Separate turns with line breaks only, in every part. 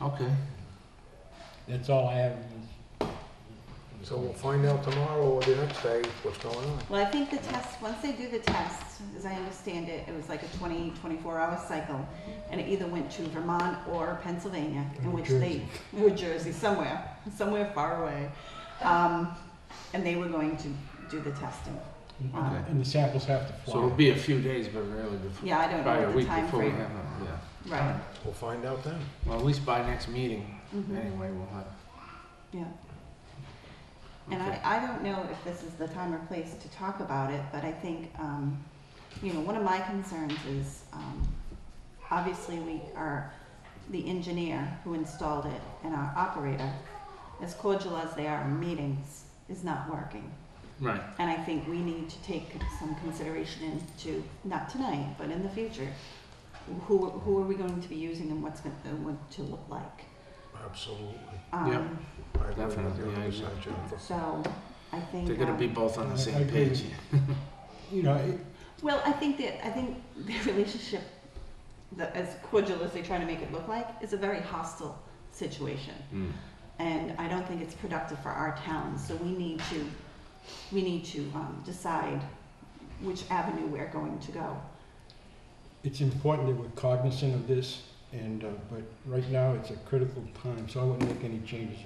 Okay.
That's all I have. in this-
So we'll find out tomorrow or the next day what's going on.
Well, I think the test, once they do the test, as I understand it, it was like a 20, 24-hour cycle, and it either went to Vermont or Pennsylvania, in
Or
which they,
Jersey.
New Jersey, somewhere, somewhere far away. Um, And they were going to do the testing.
Okay.
And the samples have to
So it'll
fly.
be a few days, but really before,
Yeah, I don't
probably
know
a
what the
week before we have
timeframe,
it, yeah.
right.
We'll find out then.
Well, at least by next meeting,
Mhm.
anyway, we'll have.
Yeah. And
Okay.
I, I don't know if this is the time or place to talk about it, but I think, um, you know, one of my concerns is, um, obviously we are, the engineer who installed it and our operator, as cordial as they are in meetings, is not working.
Right,
And I think we need to take some consideration into, not tonight, but in the future, who, who are we going to be using and what's going, what to look like?
Absolutely.
Yeah.
Um,
I agree with you
Definitely, I
100%,
agree.
Jennifer.
So, I think.
they're gonna
um,
be both on the
I- I
same
agree.
page.
You know, it,
Well, I think that, I think the relationship, the, as cordial as they try to make it look like, is a very hostile situation.
Mm.
And I don't think it's productive for our town, so we need to, we need to, um, decide which avenue we're going to go.
it's important that we're cognizant of this, and, uh, but right now, it's a critical time, so I wouldn't make any changes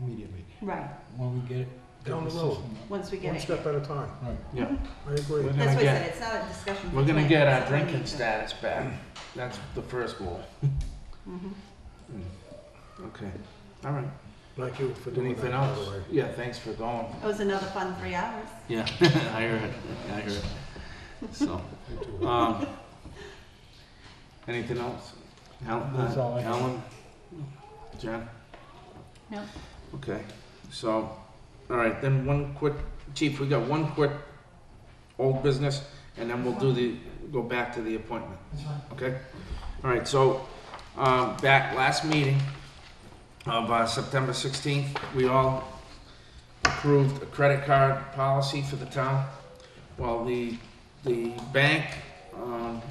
immediately.
Right,
When we get it. get
Down the road.
system up.
once we get
One
it.
step at a time.
Right.
Yeah,
I agree.
We're
Well,
That's
gonna
why I
get-
said, it's not a discussion.
we're gonna
tonight,
get
it's
our
something we
drinking
need to-
status back, that's the first goal.
Mhm.
Mm. Okay, all right,
Thank you for doing that,
anything
by the
else?
way.
Yeah, thanks for going.
It was another fun three hours.
Yeah, I heard it. I heard it. So, um, anything else? Al- uh,
That's all I have.
Alan? Jen?
No.
Okay, so, all right, then one quick, chief, we got one quick old business, and then we'll do the, go back to the appointment. Okay? All right, so, um, back last meeting of, uh, September sixteenth, we all approved a credit card policy for the town. Well, the, the bank, um,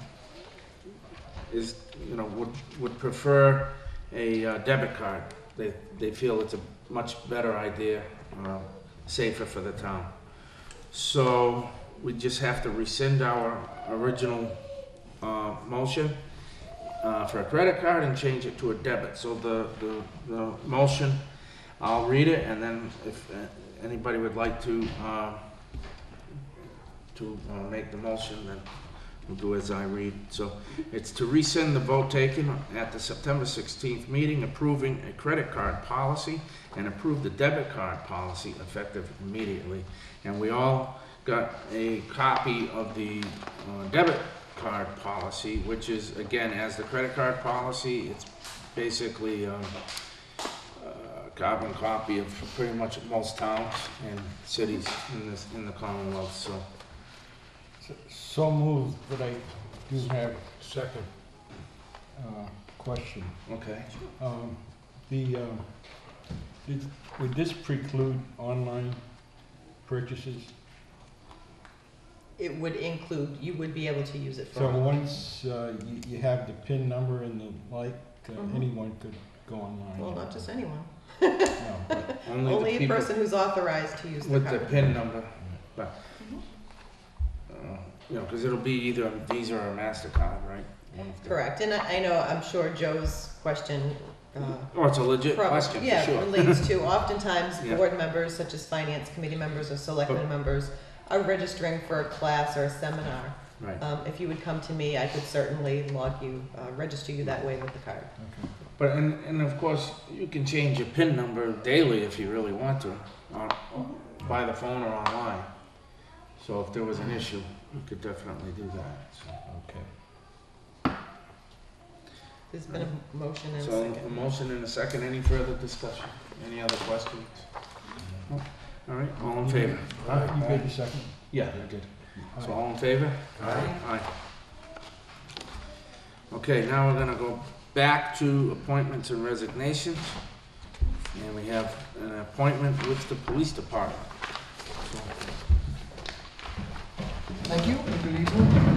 is, you know, would, would prefer a uh, debit card. They, they feel it's a much better idea, uh, safer for the town. So we just have to rescind our original, uh, motion, uh, for a credit card and change it to a debit. So the, the, the motion I'll read it, and then if uh, anybody would like to, uh, to uh, make the motion, then we'll do as I read. So it's to rescind the vote taken at the September 16th meeting approving a credit card policy and approve the debit card policy effective immediately. And we all got a copy of the uh, debit card policy, which is, again, as the credit card policy, it's basically, um, uh, carbon copy of pretty much most towns and cities in this, in the Commonwealth, so.
So- So moved, but I do have
Second,
a question.
Okay.
Um, The, uh, did- would this preclude online purchases?
It would include, you would be able to use it for.
So once uh, you you have the PIN number and the like, uh,
Mhm.
anyone could go online?
Well, not just anyone,
No, but-
only
the
a
people
person who's authorized to use the
With the
card.
PIN number, but,
Mm-hmm.
uh, you know, because it'll be either a Visa or a MasterCard, right? One of the-
Correct, and I, I know, I'm sure Joe's question, uh,
Oh, it's a legit
prob-
question, for
yeah,
sure.
relates to oftentimes
Yeah.
board members such as finance committee members or selectmen members are registering for a class or a seminar.
Right,
Um, if you would come to me, I could certainly log you, uh, register you that way with the card.
okay.
but, and, and of course, you can change your PIN number daily if you really want to, or or by the phone or online. So if there was an issue, you could definitely do that, so.
There's been a motion and a
So, a
second.
motion and a second, any further discussion? Any other questions? No? All right, all in favor?
Uh, You made the second?
Yeah, I did. So
Aye.
all in favor?
Aye.
Aye. Okay, now we're gonna go back to appointments and resignations. And we have an appointment with the police department.
Thank you, and good evening.